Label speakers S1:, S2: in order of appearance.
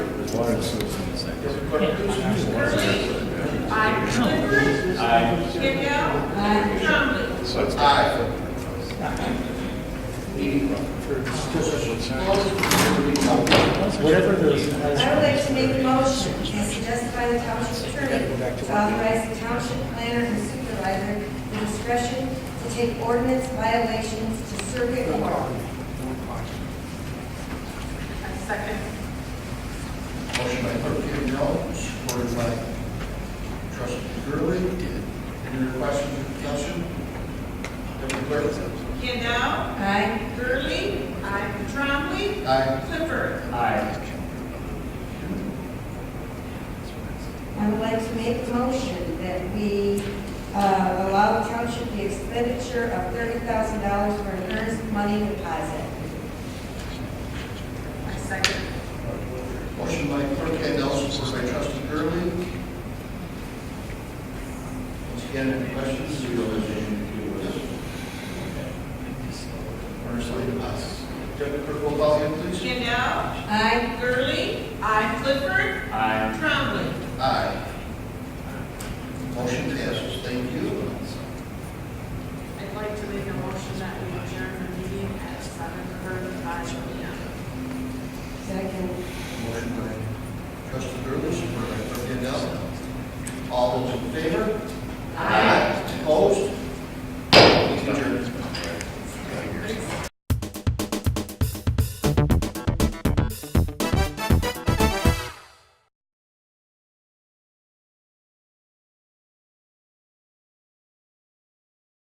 S1: Whatever it is, as-
S2: I would like to make a motion as suggested by the township attorney to authorize the township planner and supervisor the discretion to take ordinance violations to circuit court.
S3: Motion by Clerk Campbell, supported by Trustee Gurley. Any other questions or discussion? Deputy Clerk?
S4: Kendall.
S2: Aye.
S4: Gurley. Aye. Trombley.
S3: Aye.
S4: Clifford.
S3: Aye.
S2: I would like to make a motion that we uh, allow the township the expenditure of thirty thousand dollars for an earnest money deposit.
S4: I second.
S3: Motion by Clerk Campbell, supported by Trustee Gurley. Once again, any questions? Earnestly, pass. Deputy Clerk, roll call again, please.
S4: Kendall.
S2: Aye.
S4: Gurley. Aye. Clifford. Aye. Trombley.
S3: Aye. Motion passes, thank you.
S5: I'd like to make a motion that we adjourn the meeting at seven thirty-five P M.
S2: Second.
S3: Motion by trustee Gurley, supported by trustee Adele. All those in favor?